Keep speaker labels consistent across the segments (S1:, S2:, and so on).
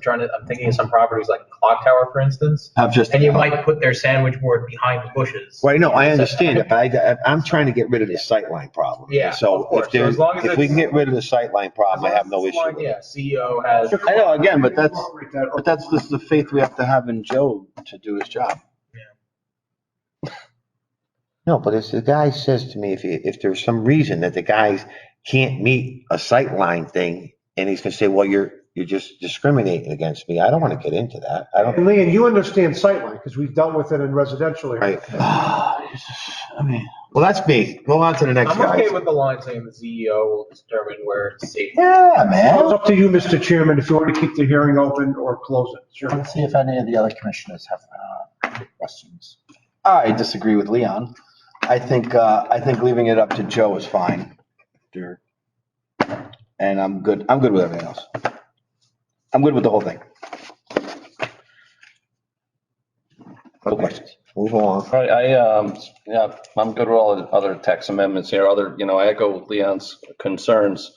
S1: trying to, I'm thinking of some properties like Clock Tower, for instance.
S2: I'm just.
S1: And you might put their sandwich board behind the bushes.
S2: Right, no, I understand it, but I, I- I'm trying to get rid of the sightline problem.
S1: Yeah, of
S2: So
S1: course.
S2: if
S1: So
S2: there's,
S1: as long as
S2: if we can
S1: it's-
S2: get rid of the sightline problem, I have no issue with
S1: Yeah,
S2: it.
S1: CEO has.
S2: I know, again, but that's, but that's just the faith we have to have in Joe to do his job. No, but if the guy says to me, if, he- if there's some reason that the guy can't meet a sightline thing, and he's gonna say, well, you're, you're just discriminating against me, I don't wanna get into that. I don't,
S3: And Leon, you understand sightline, because we've dealt with it in residential areas.
S2: right. Ah, Well, that's me. Go on to the next
S1: I'm
S2: guy.
S1: okay with the line saying the CEO will determine where it's safe.
S2: Yeah, man.
S3: It's up to you, Mr. Chairman, if you want to keep the hearing open or close it. Sure.
S4: Let's see if any of the other commissioners have uh, questions. I disagree with Leon. I think, uh, I think leaving it up to Joe is fine. Sure. And I'm good, I'm good with everything else. I'm good with the whole thing. No questions.
S2: Move along.
S5: Right, I, um, yeah, I'm good with all the other tax amendments here, other, you know, I echo Leon's concerns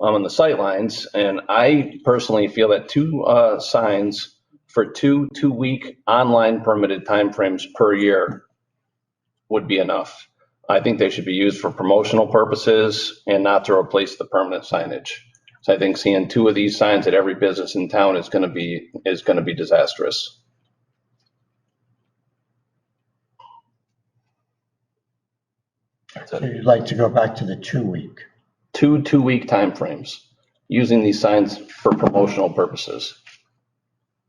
S5: um, on the sightlines, and I personally feel that two, uh, signs for two, two-week online permitted timeframes per year would be enough. I think they should be used for promotional purposes and not to replace the permanent signage. So I think seeing two of these signs at every business in town is gonna be, is gonna be disastrous.
S4: So you'd like to go back to the two-week?
S5: two two-week timeframes using these signs for promotional purposes.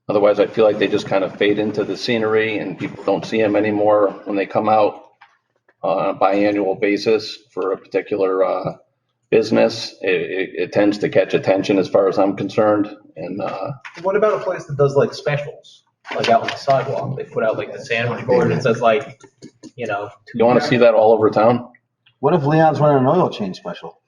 S5: Otherwise, I feel like they just kind of fade into the scenery and people don't see them anymore when they come out on a biannual basis for a particular uh, business. It, it, it tends to catch attention as far as I'm concerned. And uh,
S1: What about a place that does like specials, like out on the sidewalk? They put out like the sandwich board and says like, you know.
S5: you want to see that all over town?
S4: What if Leon's running an oil change special?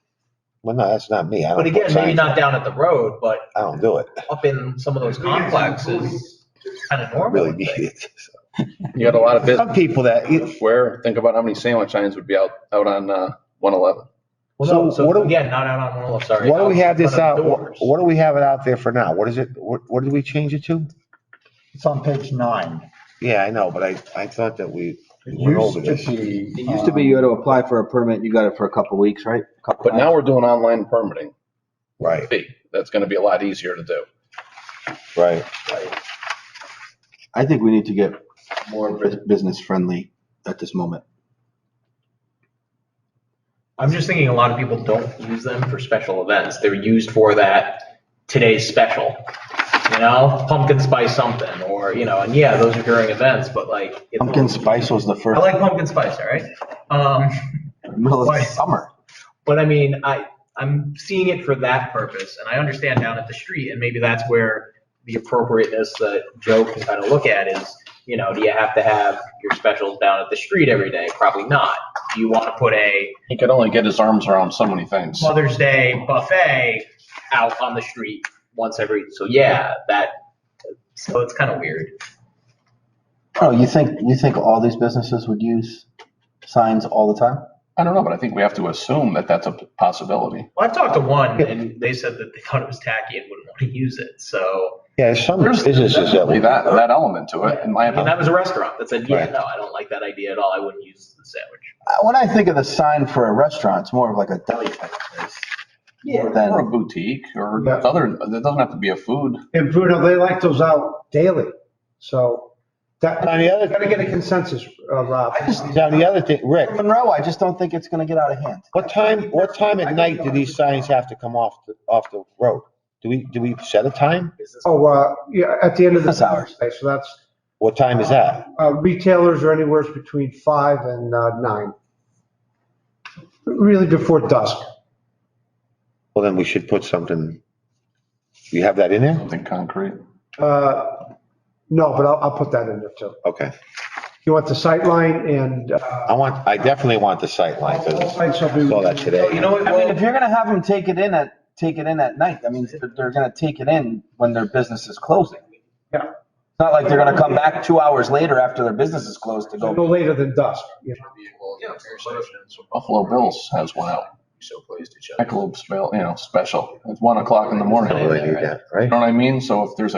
S2: Well, no, that's not me. I
S1: But
S2: don't put
S1: again, maybe
S2: signs. I
S1: not down at the road, but
S2: don't do it.
S1: up in some of those complexes, kind of
S2: I
S1: normal.
S2: really
S1: I
S2: need
S1: think.
S2: it.
S5: You got a lot of business
S2: Some people that,
S5: where, think about how many sandwich signes would be out, out on uh, 111.
S1: Well, no,
S2: So what do-
S1: so again, not out on Willow, sorry.
S2: why do
S1: out
S2: we have
S1: in
S2: this
S1: front
S2: out?
S1: of
S2: What
S1: doors.
S2: what do we have it out there for now? What is it? What, what did we change it to?
S4: It's on page nine.
S2: Yeah, I know, but I, I thought that we
S4: It
S2: went over
S4: used
S2: this.
S4: to be.
S6: It used to be uh, you had to apply for a permit, you got it for a couple weeks, right? Couple
S5: But now we're doing online permitting.
S2: Right,
S5: fee. That's going to be a lot easier to do.
S2: right.
S6: I think we need to get more business friendly at this moment.
S1: I'm just thinking a lot of people don't use them for special events. They're used for that today's special, you know, pumpkin spice something or, you know, and yeah, those are during events, but like. it's-
S6: Pumpkin spice was the
S1: I
S6: first,
S1: like pumpkin spice, all right? Um,
S6: middle of
S1: Why?
S6: the summer.
S1: but I mean, I, I'm seeing it for that purpose and I understand down at the street and maybe that's where the appropriateness that Joe can kind of look at is, you know, do you have to have your specials down at the street every day? Probably not. Do you want to put a
S5: He could only get his arms around so many things.
S1: Mother's Day buffet out on the street once every, so yeah, that, so it's kind of weird.
S4: Oh, you think, you think all these businesses would use signs all the time?
S6: Uh,
S5: I don't know, but I think we have to assume that that's a possibility.
S1: Well, I've talked to one and they said that they thought it was tacky and wouldn't want to use it, so.
S2: Yeah, there's some businesses that
S5: Definitely
S2: we,
S5: that, that element to it, in my
S1: And that
S5: opinion.
S1: was a restaurant that said, yeah,
S2: Right.
S1: no, I don't like that idea at all. I wouldn't use the sandwich.
S4: Uh, When I think of the sign for a restaurant, it's more of like a deli type of place. More than-
S5: Or a boutique or
S3: Yeah.
S5: other, it doesn't have to be a food.
S3: And Bruno, they like those out daily. So that,
S2: on the
S3: I
S2: other,
S3: gotta get a consensus, uh, Rob.
S2: now the other thing, Rick,
S4: Monroe, I just don't think it's gonna get out of hand.
S2: what time, what time at night do these signs have to come off, the- off the road? Do we, do we set a time?
S3: Oh, uh, yeah, at the end of the.
S4: That's ours.
S3: Okay, So that's,
S2: What time is that?
S3: uh, retailers are anywhere between five and uh, nine. Really before dusk.
S2: Well, then we should put something, you have that in there?
S5: Something concrete.
S3: Uh, No, but I'll, I'll put that in there too.
S2: Okay.
S3: You want the sightline and. uh,
S2: I want, I definitely want the sightline for this.
S3: signs shall be-
S2: Saw that today.
S1: You know what,
S4: I mean, if
S1: well,
S4: you're gonna have them take it in at, take it in at night, that means that they're gonna take it in when their business is closing.
S3: Yeah.
S4: It's not like they're gonna come back two hours later after their business is closed to
S3: No
S4: go.
S3: later than dusk. you know.
S5: Buffalo Bills has one out. Michelob, spell- you know, special. It's one o'clock in the morning.
S2: Something like
S5: You
S2: that, right?
S5: know what I mean? So if there's a